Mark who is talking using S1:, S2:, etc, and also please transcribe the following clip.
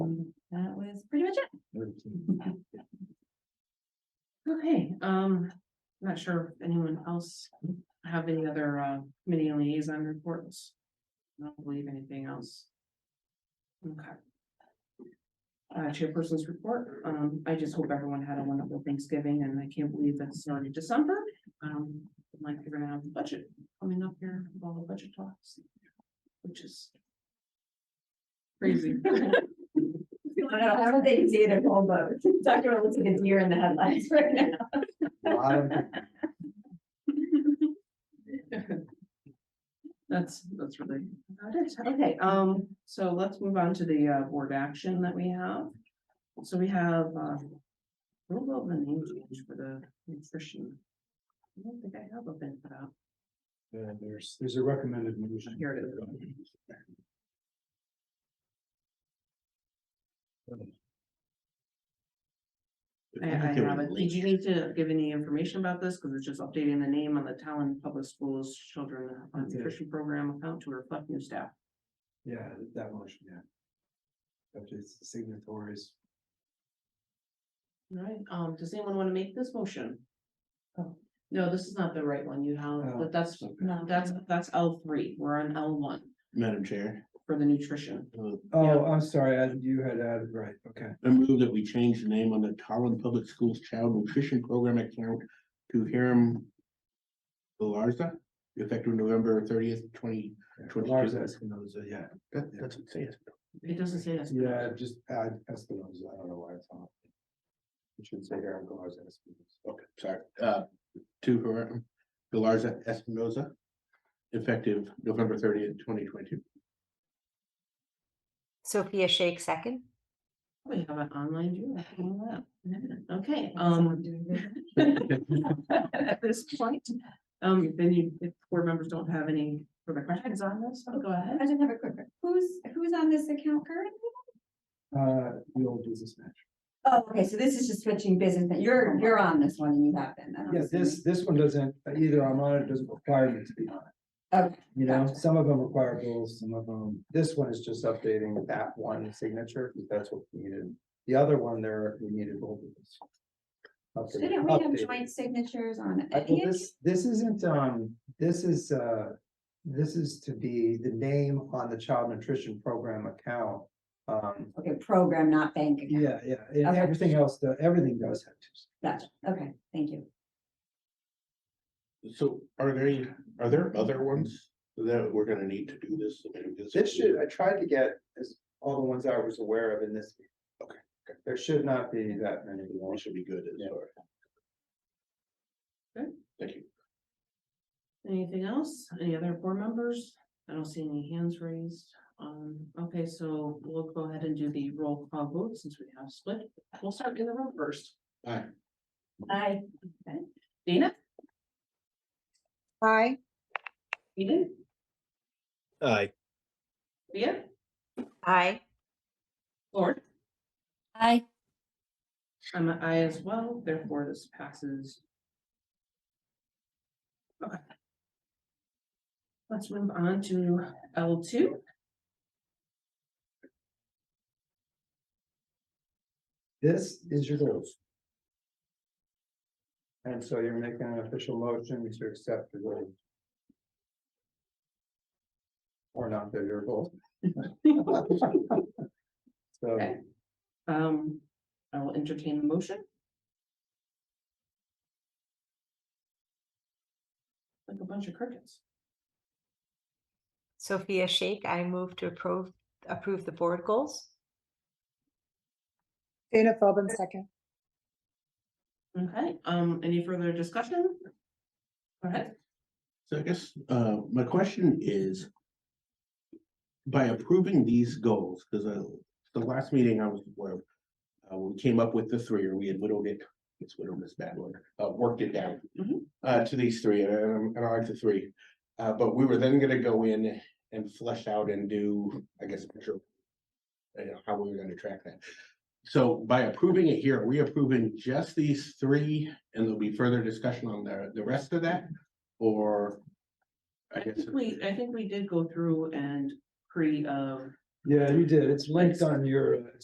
S1: Um, I'm not sure if anyone else have any other uh committee liaison reports. I don't believe anything else. Okay. Uh, chairperson's report, um, I just hope everyone had a wonderful Thanksgiving and I can't believe it's already December. Um, like we're gonna have the budget coming up here, with all the budget talks, which is crazy.
S2: I don't think it's either one, but Dr. Willis is a deer in the headlights right now.
S3: lot of
S1: That's, that's really about it. Okay, um, so let's move on to the uh board action that we have. So we have uh. What about the name change for the nutrition? I don't think I have a bit for that.
S3: Yeah, there's, there's a recommended motion.
S1: Here it I, I have it. Did you need to give any information about this? Cause it's just updating the name on the Talon Public Schools Children uh,
S3: I did.
S1: Nutrition Program account to reflect new staff.
S3: Yeah, that motion, yeah. Updates the signatories.
S1: All Right, um, does anyone want to make this motion? Oh, no, this is not the right one, you have,
S3: Oh,
S1: but that's,
S3: okay.
S2: No.
S1: Um, that's, that's L three, we're on L one
S4: Madam Chair,
S1: for the nutrition.
S4: uh,
S3: Oh, I'm sorry, I- you had added, right, okay.
S4: I move that we change the name on the Tallinn Public Schools Child Nutrition Program account to Hiram Galarza, effective November thirtieth, twenty, Twenty two.
S3: Lars Espinoza, yeah,
S4: that, that's what it says.
S1: It doesn't say that's.
S3: yeah, just add Espinoza, I don't know why it's on. It should say Aaron Lars Espinoza.
S4: Okay, sorry, uh, to Hiram Galarza Espinoza, effective November thirtieth, twenty twenty-two.
S5: Sophia Shake second.
S1: We have an online view. I don't know that. Okay, um. At this point, um, if any, if board members don't have any further questions on this, I'll go ahead.
S2: I just have a quick, who's, who's on this account currently?
S3: Uh, the old business match.
S2: Oh, okay, so this is just switching business, but you're, you're on this one and you have been. then, I'm
S3: Yeah, this, this one doesn't, either I'm on it, doesn't require me to be on it.
S2: assuming. Okay,
S3: You know,
S2: Gotcha.
S3: some of them require bills, some of them, this one is just updating that one signature, because that's what we needed. The other one there, we needed both of us. Update-
S2: Shouldn't we have
S3: update.
S2: joint signatures on
S3: I- well,
S2: any of
S3: This, this isn't, um, this is, uh, this is to be the name on the child nutrition program account. Um,
S2: Okay, program, not bank account.
S3: yeah, yeah, and
S2: Okay.
S3: everything else, the- everything does have to.
S2: Gotcha, okay, thank you.
S4: So are there, are there other ones that we're gonna need to do this? I mean, this-
S3: This should, I tried to get as, all the ones I was aware of in this.
S4: Okay.
S3: There should not be that many.
S4: One should be good,
S3: Yeah.
S4: as far.
S1: Okay.
S4: Thank you.
S1: Anything else? Any other board members? I don't see any hands raised. Um, okay, so we'll go ahead and do the roll call vote since we have split. We'll start in the room first.
S4: Bye.
S2: Aye.
S1: Dana,
S5: Aye.
S1: Eden,
S6: Aye,
S1: Leah,
S5: Aye.
S1: Lord.
S5: Aye.
S1: I'm an I as well, therefore this passes. Okay. Let's move on to L two.
S3: This is your goals. And so you're making an official motion to accept the goals. Or not, they're your goals. So,
S1: Okay. Um, I will entertain the motion. Like a bunch of crickets.
S5: Sophia Shake, I move to approve, approve the board goals.
S7: Dana Philbin, second.
S1: Okay, um, any further discussion? Go ahead.
S4: So I guess, uh, my question is. By approving these goals, because uh, the last meeting I was, where, uh, when we came up with the three, or we had whittled it, it's whittled this bad one, uh, worked it down.
S1: Mhm.
S4: Uh, to these three, and, um, and I like the three, uh, but we were then gonna go in and flesh out and do, I guess, measure, You know, how we were gonna track that. So by approving it here, are we approving just these three, and there'll be further discussion on the, the rest of that? Or? I
S1: I
S4: guess,
S1: think we, I think we did go through and pre, um,
S3: yeah, you did. It's linked on your, uh,